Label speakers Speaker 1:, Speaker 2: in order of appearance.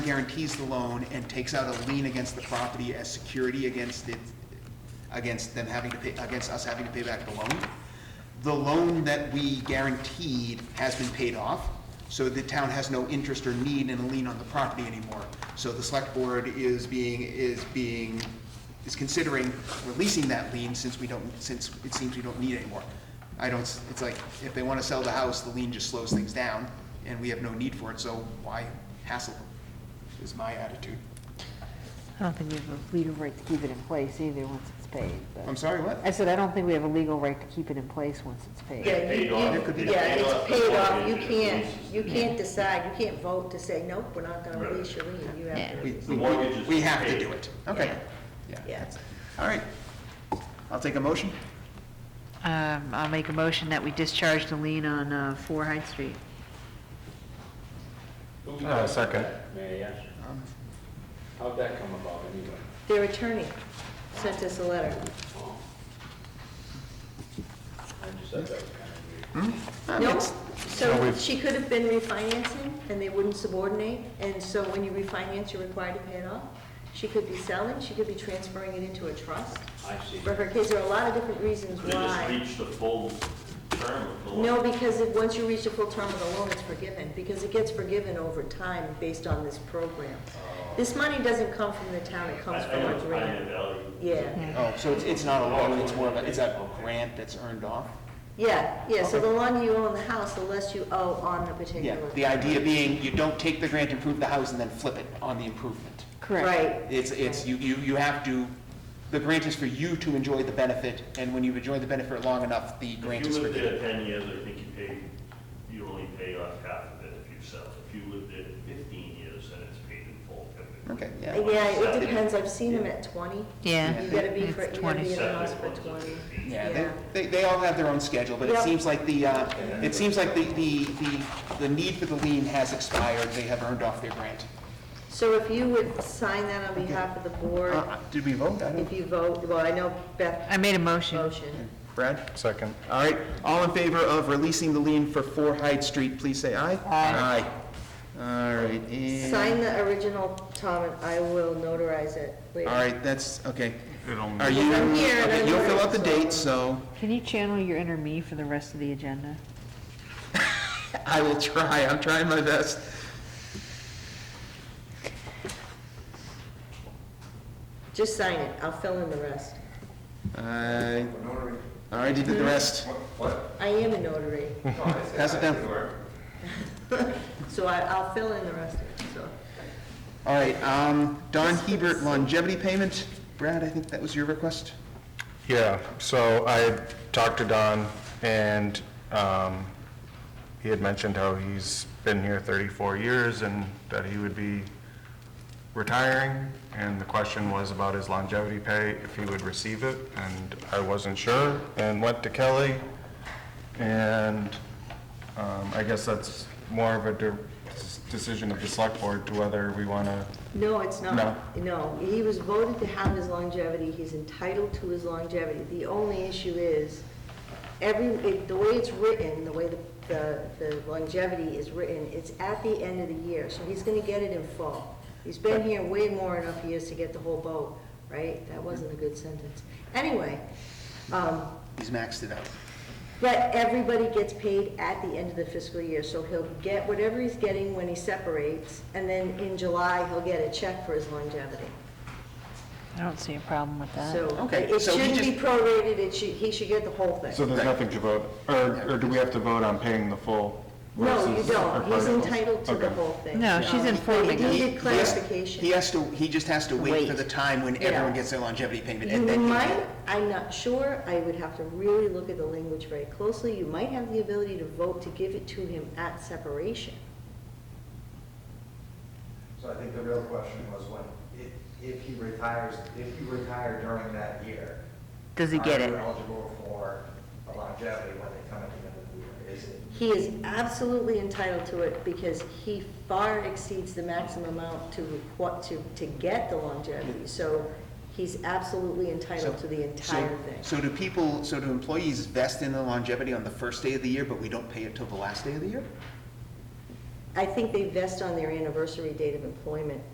Speaker 1: guarantees the loan and takes out a lien against the property as security against it, against them having to pay, against us having to pay back the loan. The loan that we guaranteed has been paid off, so the town has no interest or need in a lien on the property anymore. So the select board is being, is being, is considering releasing that lien since we don't, since it seems we don't need it anymore. I don't, s- it's like, if they want to sell the house, the lien just slows things down, and we have no need for it, so why hassle them? is my attitude.
Speaker 2: I don't think we have a legal right to keep it in place either, once it's paid,
Speaker 1: I'm
Speaker 2: but,
Speaker 1: sorry, what?
Speaker 2: I said, I don't think we have a legal right to keep it in place once it's paid.
Speaker 3: Yeah, you,
Speaker 4: Paid
Speaker 3: you,
Speaker 4: off. It could be
Speaker 3: yeah,
Speaker 4: paid
Speaker 3: it's
Speaker 4: off
Speaker 3: paid
Speaker 4: before
Speaker 3: off,
Speaker 4: the
Speaker 3: you
Speaker 4: end of the
Speaker 3: can't,
Speaker 4: lease.
Speaker 3: you can't decide, you can't vote to say, nope, we're not gonna release your lien, you have to.
Speaker 1: We-
Speaker 4: The
Speaker 1: we-
Speaker 4: mortgage is
Speaker 1: We have to
Speaker 4: paid.
Speaker 1: do it. Okay.
Speaker 3: Yeah.
Speaker 1: that's- All right. I'll take a motion.
Speaker 2: Um, I'll make a motion that we discharge the lien on, uh, Four Hyde Street.
Speaker 5: Uh, second.
Speaker 4: May I ask? How'd that come about anyway?
Speaker 3: Their attorney sent us a letter.
Speaker 4: I just thought that was kind of weird.
Speaker 1: Uh,
Speaker 3: No,
Speaker 5: So
Speaker 3: so
Speaker 5: we've-
Speaker 3: she could have been refinancing, and they wouldn't subordinate, and so when you refinance, you're required to pay it off. She could be selling, she could be transferring it into a trust
Speaker 4: I see.
Speaker 3: for her kids, there are a lot of different reasons
Speaker 6: They just
Speaker 3: why.
Speaker 6: reached the full term of the law.
Speaker 3: No, because it, once you reach the full term of the loan, it's forgiven, because it gets forgiven over time based on this program. This money doesn't come from the town, it
Speaker 6: I,
Speaker 3: comes
Speaker 6: I
Speaker 3: from
Speaker 6: know
Speaker 3: a
Speaker 6: it's high
Speaker 3: grant.
Speaker 6: in value.
Speaker 3: Yeah,
Speaker 1: Oh, so it's, it's not a loan, it's more of a, it's a grant that's earned off?
Speaker 3: yeah, yeah, so the longer you own the house, the less you owe on the
Speaker 1: Yeah,
Speaker 3: particular.
Speaker 1: the idea being you don't take the grant, improve the house, and then flip it on the improvement.
Speaker 2: Correct.
Speaker 3: Right,
Speaker 1: It's, it's, you, you, you have to, the grant is for you to enjoy the benefit, and when you've enjoyed the benefit long enough, the grant
Speaker 6: If
Speaker 1: is
Speaker 6: you lived
Speaker 1: forgiven.
Speaker 6: there ten years, I think you pay, you only pay off half of it if you sell. If you lived there fifteen years, then it's paid in full.
Speaker 1: Okay, yeah.
Speaker 3: Uh, yeah, it depends, I've seen them at twenty.
Speaker 2: Yeah.
Speaker 3: You gotta be,
Speaker 2: It's
Speaker 3: for- you gotta
Speaker 2: 20.
Speaker 3: be in the house
Speaker 6: Separate
Speaker 3: for
Speaker 6: ones are
Speaker 3: twenty.
Speaker 6: fifteen.
Speaker 1: Yeah, they, they, they all have their own schedule, but it
Speaker 3: Yep.
Speaker 1: seems like the, uh, it seems like the, the, the, the need for the lien has expired, they have earned off their grant.
Speaker 3: So if you would sign that on behalf of the board,
Speaker 1: Uh, Did we vote? I
Speaker 3: if
Speaker 1: don't,
Speaker 3: you vote, well, I know Beth
Speaker 2: I made a motion.
Speaker 3: motion.
Speaker 1: Brad?
Speaker 5: Second.
Speaker 1: All right, all in favor of releasing the lien for Four Hyde Street, please say aye. Aye. All right, and, all
Speaker 3: Sign the original, Tom, and I will notarize it later.
Speaker 1: right, that's, okay. Are
Speaker 3: Because
Speaker 1: you,
Speaker 3: I'm here and
Speaker 1: okay,
Speaker 3: I'm
Speaker 1: you'll fill out the
Speaker 3: learning, so-
Speaker 1: date, so
Speaker 2: Can you channel your inner me for the rest of the agenda?
Speaker 1: I will try, I'm trying my best.
Speaker 3: Just sign it, I'll fill in the rest.
Speaker 1: Uh, All right, you did the rest.
Speaker 3: I am a notary,
Speaker 1: Pass it down.
Speaker 3: so I, I'll fill in the rest of it, so.
Speaker 1: All right, um, Don Hebert longevity payment. Brad, I think that was your request?
Speaker 5: Yeah, so I talked to Don, and um, he had mentioned how he's been here 34 years and that he would be retiring, and the question was about his longevity pay, if he would receive it, and I wasn't sure, and went to Kelly, and um, I guess that's more of a de- decision of the select board to whether we want to
Speaker 3: No, it's
Speaker 5: No.
Speaker 3: not. No, he was voted to have his longevity, he's entitled to his longevity. The only issue is, every, it- the way it's written, the way the- the the longevity is written, it's at the end of the year, so he's gonna get it in fall. He's been here way more enough years to get the whole boat, right? That wasn't a good sentence. Anyway, um,
Speaker 1: He's maxed it out.
Speaker 3: but everybody gets paid at the end of the fiscal year, so he'll get whatever he's getting when he separates, and then in July, he'll get a check for his longevity.
Speaker 2: I don't see a problem with that.
Speaker 3: So
Speaker 1: Uh, Okay,
Speaker 3: it
Speaker 1: so he
Speaker 3: shouldn't be
Speaker 1: just-
Speaker 3: prorated, it should, he should get the whole
Speaker 5: So
Speaker 3: thing.
Speaker 5: there's nothing to vote, or, or do we have to vote on paying the full versus?
Speaker 3: No, you don't,
Speaker 5: or
Speaker 3: he's
Speaker 5: partial?
Speaker 3: entitled to the
Speaker 5: Okay.
Speaker 3: whole thing.
Speaker 2: No, she's
Speaker 3: Um,
Speaker 2: informing
Speaker 3: He
Speaker 2: us.
Speaker 1: He- he
Speaker 3: needed
Speaker 1: has- He
Speaker 3: clarification.
Speaker 1: has to, he just has to wait for
Speaker 3: Wait.
Speaker 1: the time when
Speaker 3: Yeah.
Speaker 1: everyone gets their longevity payment.
Speaker 3: You
Speaker 1: and then he'll get
Speaker 3: might, I'm not sure, I would have to really look at the language very closely, you might have the ability to vote to give it to him at separation.
Speaker 7: So I think the real question was when, if, if he retires, if you retire during that year.
Speaker 2: Does he get
Speaker 7: Are you
Speaker 2: it?
Speaker 7: eligible for a longevity when they come at the end of the year? Is it,
Speaker 3: He is absolutely entitled to it because he far exceeds the maximum amount to, requ- to, to get the longevity. So he's absolutely entitled to the entire
Speaker 1: so-
Speaker 3: thing.
Speaker 1: So do people, so do employees vest in the longevity on the first day of the year, but we don't pay it till the last day of the year?
Speaker 3: I think they vest on their anniversary date of employment.